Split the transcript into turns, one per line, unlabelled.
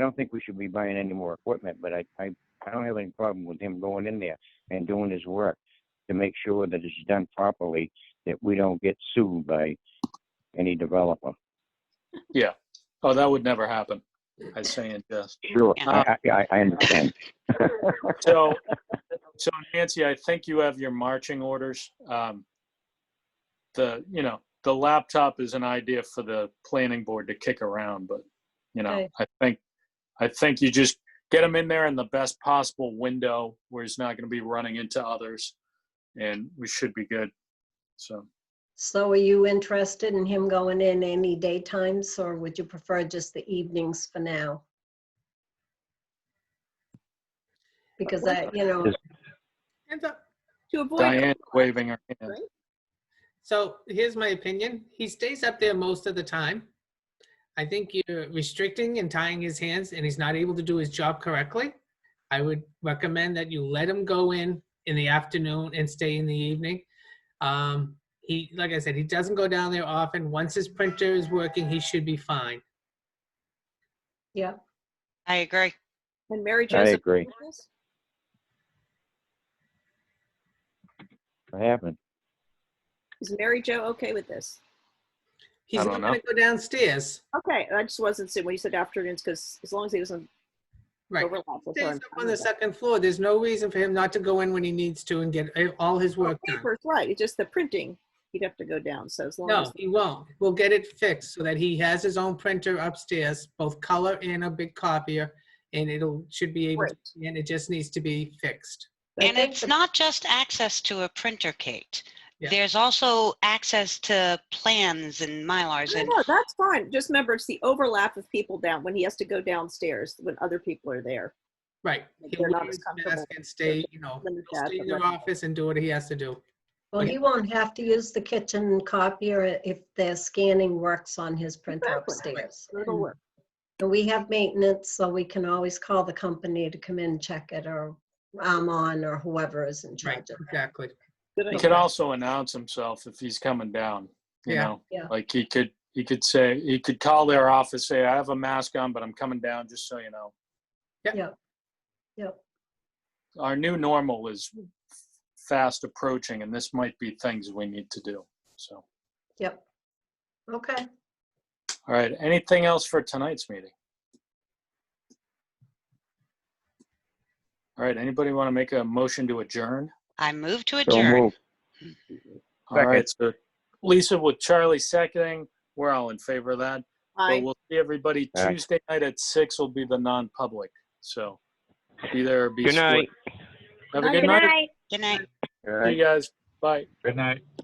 I don't think we should be buying any more equipment, but I, I, I don't have any problem with him going in there and doing his work to make sure that it's done properly, that we don't get sued by any developer.
Oh, that would never happen. I say in jest.
Sure. I, I- I, I understand.
So, so Nancy, I think you have your marching orders. Um, The, you know, the laptop is an idea for the planning board to kick around, but, you know,
Okay.
I think, I think you just get him in there in the best possible window where he's not going to be running into others, and we should be good. So,
So are you interested in him going in any daytimes, or would you prefer just the evenings for now? Because I, you know,
Just-
Hands up. To avoid.
Diane waving her hand.
So here's my opinion. He stays up there most of the time. I think you're restricting and tying his hands and he's not able to do his job correctly. I would recommend that you let him go in in the afternoon and stay in the evening. Um, he, like I said, he doesn't go down there often. Once his printer is working, he should be fine.
yeah,
I agree.
And Mary
I
Joseph.
agree. What happened?
Is Mary Jo okay with this?
I
He's
don't
not gonna go downstairs.
Okay, I just wasn't saying when you said afternoons, because as long as he doesn't
Right.
overlap with
Stays
her.
up on the second floor. There's no reason for him not to go in when he needs to and get eh, all his work done.
Papers, right, it's just the printing, he'd have to go down, so as long as,
No, he won't. We'll get it fixed so that he has his own printer upstairs, both color and a big copier, and it'll, should be able, to- and it just needs to be fixed.
I
And
think
it's
the-
not just access to a printer, Kate.
Yeah.
There's also access to plans and Mylars
No,
and
no, that's fine, just remember, it's the overlap of people down, when he has to go downstairs, when other people are there.
Right.
Like,
He'll
they're not
leave
as
his
comfortable
desk and stay, you know,
Let me
he'll
ask
stay in
them.
their office and do what he has to do.
well, he won't have to use the kitchen copier if the scanning works on his printer
Exactly.
upstairs.
It'll work.
And we have maintenance, so we can always call the company to come in, and check it, or Amon, or whoever is in
Right,
charge of that.
exactly.
Good
He
idea.
could also announce himself if he's coming down, you
Yeah.
know?
Yeah.
Like he could, he could say, he could call their office, say, I have a mask on, but I'm coming down, just so you know.
Yep.
Our new normal is fast approaching and this might be things we need to do. So, all
Yep. Okay,
right, anything else for tonight's meeting? All right, anybody want to make a motion to adjourn?
I move to
So
adjourn.
moved.
All right, so Lisa with Charlie seconding, we're all in favor of that. But
Aye.
we'll see everybody
All right.
Tuesday night at six will be the non-public, so be there or be.
Good
split.
night.
Have a good night.
Good night.
All
See
right.
you guys. Bye.
Good night.